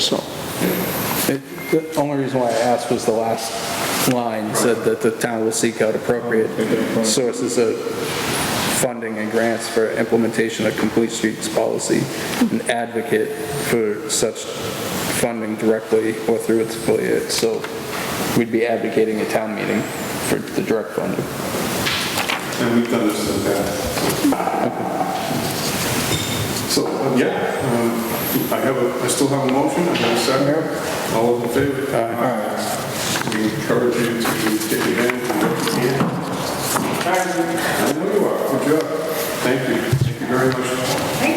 so. It- The only reason why I asked was the last line said that the town will seek out appropriate sources of funding and grants for implementation of Complete Streets policy and advocate for such funding directly or through its affiliates. So we'd be advocating a town meeting for the direct funding. And we've done this in the past. So, uh, yeah, um, I have, a- I still have a motion, I have a second. All those in favor? Aye. We encourage you to get your hand and work with me. I know you are, good job. Thank you, thank you very much. Thank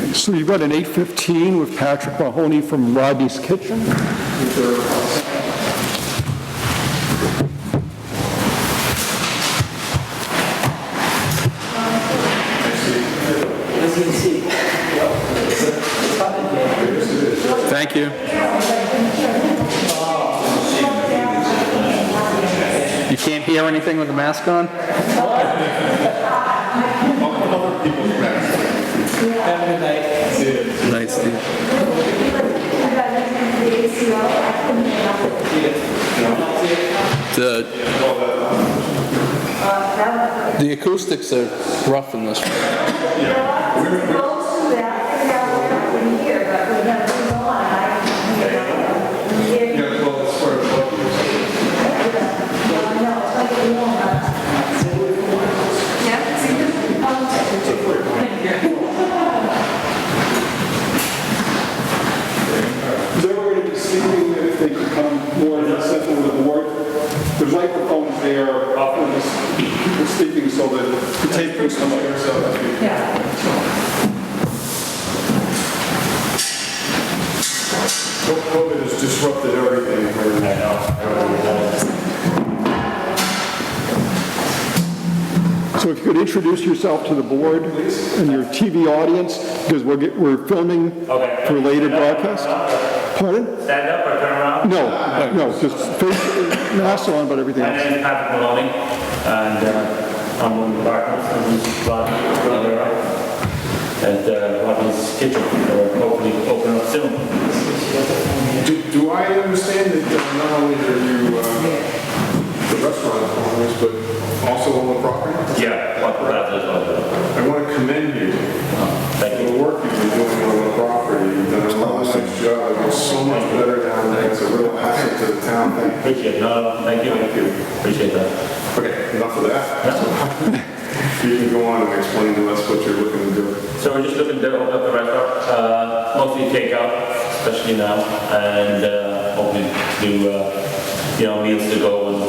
you. Okay, so you've got an 8:15 with Patrick Mahoney from Rodney's Kitchen. Thank you. You can't hear anything with the mask on? Night, Steve. The, the acoustics are rough in this room. Yeah, well, it's sort of like you said, They were going to be speaking if they could come more in center with the board. The microphones there often is speaking so that the tape can come out. so, COVID has disrupted everything. I So if you could introduce yourself to the board and your TV audience, because we're get- we're filming Okay. for later broadcast. Pardon? Stand up or turn around. No, no, just face, mask on, but everything My else. name is Patrick Maloney, and uh, I'm one of the partners of Rodney, brother, at uh, Rodney's Kitchen, or hopefully open up soon. Do do I understand that uh, not only are you uh, the restaurant owners, but also on the property? Yeah, what about this one? I want to commend you for Thank you. the work you've been doing on the property. You've done a lot of job, it's so much better down there, it's a real asset to the town. Thank Appreciate it. No, no, thank you. Thank you. Appreciate that. you. Okay, enough of that. You can go on and explain to us what you're looking to do. So we're just looking to open up the restaurant, uh, mostly takeout, especially now, and uh, hoping to do, uh, you know, meals to go and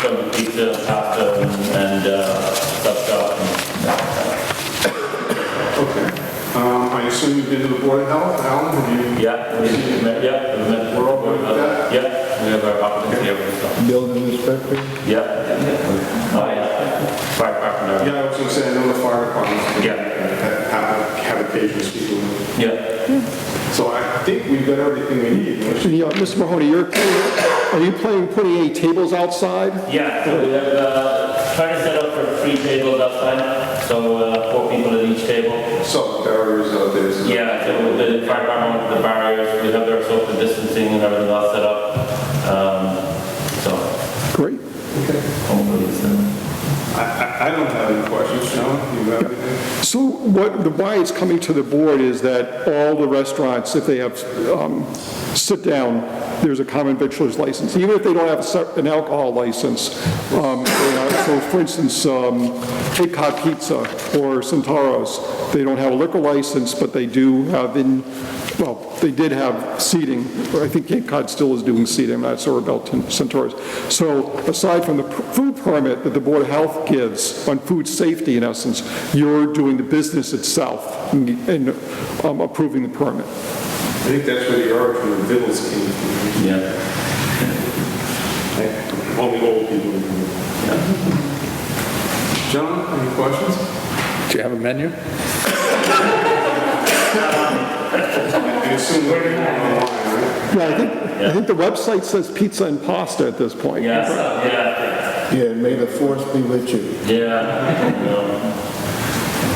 some pizza, pasta, and uh, stuff, stuff, and Okay. Um, I assume you've been to the Board of Health, Alan, have you? Yeah, we we met, yeah, we met, we're all good, uh, yeah, we have our options here, so, building inspector? yeah. Oh, yeah. Fire department, Yeah, I was going to say, I know the fire department. Yeah. Have, have occasions people. yeah. So I think we've got everything we need. don't you? And, yeah, Mr. Mahoney, you're, are you planning putting any tables outside? Yeah, so we have, uh, trying to set up for three tables outside, so, uh, four people at each table. So barriers out there. so- Yeah, so the fire department, the barriers, we have their social distancing and everything all set up, um, so, Great. hopefully, it's, uh, I, I, I don't have any questions, Sean, you have anything? So what, the why it's coming to the board is that all the restaurants, if they have um, sit-down, there's a common victualer's license, even if they don't have a se- an alcohol license. um, they are- So for instance, um, Cape Cod Pizza or Centauros, they don't have a liquor license, but they do have in, well, they did have seating, or I think Cape Cod still is doing seating, I'm not sure about Ten- Centaurus. So aside from the p- food permit that the Board of Health gives on food safety, in essence, you're doing the business itself and um, approving the permit. I think that's where the art from the Vittles came from. yeah. Like, Only old people. John, any questions? Do you have a menu? I assume we're online, right? Yeah, I think, I think the website says pizza and pasta at this point. Yeah, so, yeah, Yeah, may the force be with you. yeah. Um,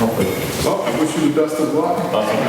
Hopefully. Well, I wish you the best of luck. Awesome.